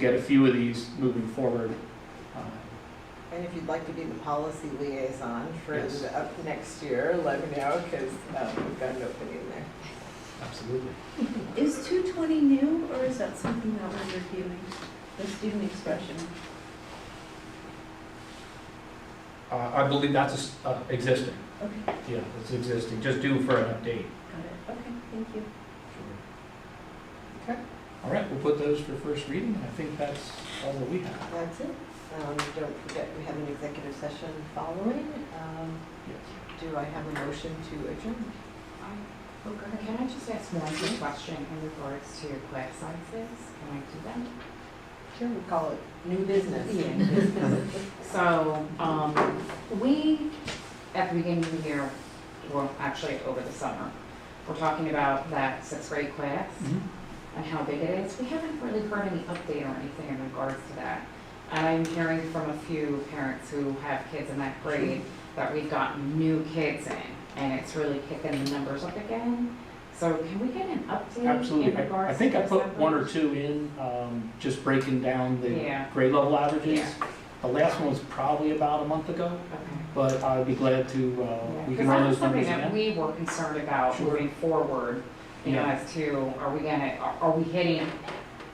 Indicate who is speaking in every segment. Speaker 1: get a few of these moving forward. Uh,
Speaker 2: And if you'd like to be the policy liaison for
Speaker 1: Yes.
Speaker 2: the- up next year, let me know, because we've got an opening there.
Speaker 1: Absolutely.
Speaker 3: Is two twenty new, or is that something that we're reviewing, the student expression?
Speaker 1: Uh, I believe that's a s- uh, existing,
Speaker 3: Okay,
Speaker 1: yeah, it's existing, just due for an update.
Speaker 3: got it, okay, thank you.
Speaker 1: Okay, all right, we'll put those for first reading, and I think that's all that we have.
Speaker 2: That's it. Um, Don't forget, we have an executive session following. Um,
Speaker 1: Yes.
Speaker 2: Do I have a motion to adjourn?
Speaker 4: Um,
Speaker 3: Oh,
Speaker 4: Can I just ask one quick question in regards to your class sizes? Can I do that?
Speaker 2: Sure, we call it new business.
Speaker 4: So, um, we, at the beginning of the year, well, actually over the summer, we're talking about that sixth grade class
Speaker 1: Mhm.
Speaker 4: and how big it is. We haven't really heard any update or anything in regards to that. And I'm hearing from a few parents who have kids in that grade that we've gotten new kids in, and it's really kicking the numbers up again. So can we get an update
Speaker 1: Absolutely,
Speaker 4: in
Speaker 1: I I
Speaker 4: regards to
Speaker 1: think I
Speaker 4: those
Speaker 1: put one or
Speaker 4: numbers?
Speaker 1: two in, um, just breaking down the
Speaker 4: Yeah.
Speaker 1: grade level averages.
Speaker 4: Yeah.
Speaker 1: The last one was probably about a month ago,
Speaker 4: Okay.
Speaker 1: but I'd be glad to, uh, we
Speaker 4: Because
Speaker 1: can run
Speaker 4: that was
Speaker 1: those
Speaker 4: something
Speaker 1: numbers
Speaker 4: that
Speaker 1: again.
Speaker 4: we were concerned about
Speaker 1: Sure.
Speaker 4: moving forward, you know,
Speaker 1: Yeah.
Speaker 4: as to, are we gonna, are- are we hitting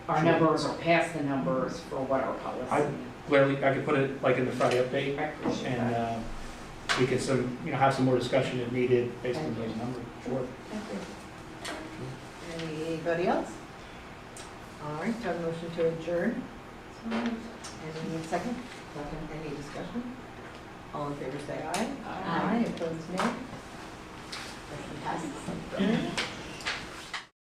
Speaker 4: our
Speaker 1: Sure.
Speaker 4: numbers or past the numbers for what our
Speaker 1: I-
Speaker 4: policy?
Speaker 1: Clearly, I could put it like in the Friday update,
Speaker 4: I appreciate
Speaker 1: And
Speaker 4: that.
Speaker 1: uh, we can some, you know, have some more discussion if needed based on those numbers. Sure.
Speaker 2: Anybody else? All right, do I have a motion to adjourn? Any second?
Speaker 4: Second.
Speaker 2: Any discussion? All in favor, say aye.
Speaker 4: Aye.
Speaker 2: Opposed, nay. Motion passes.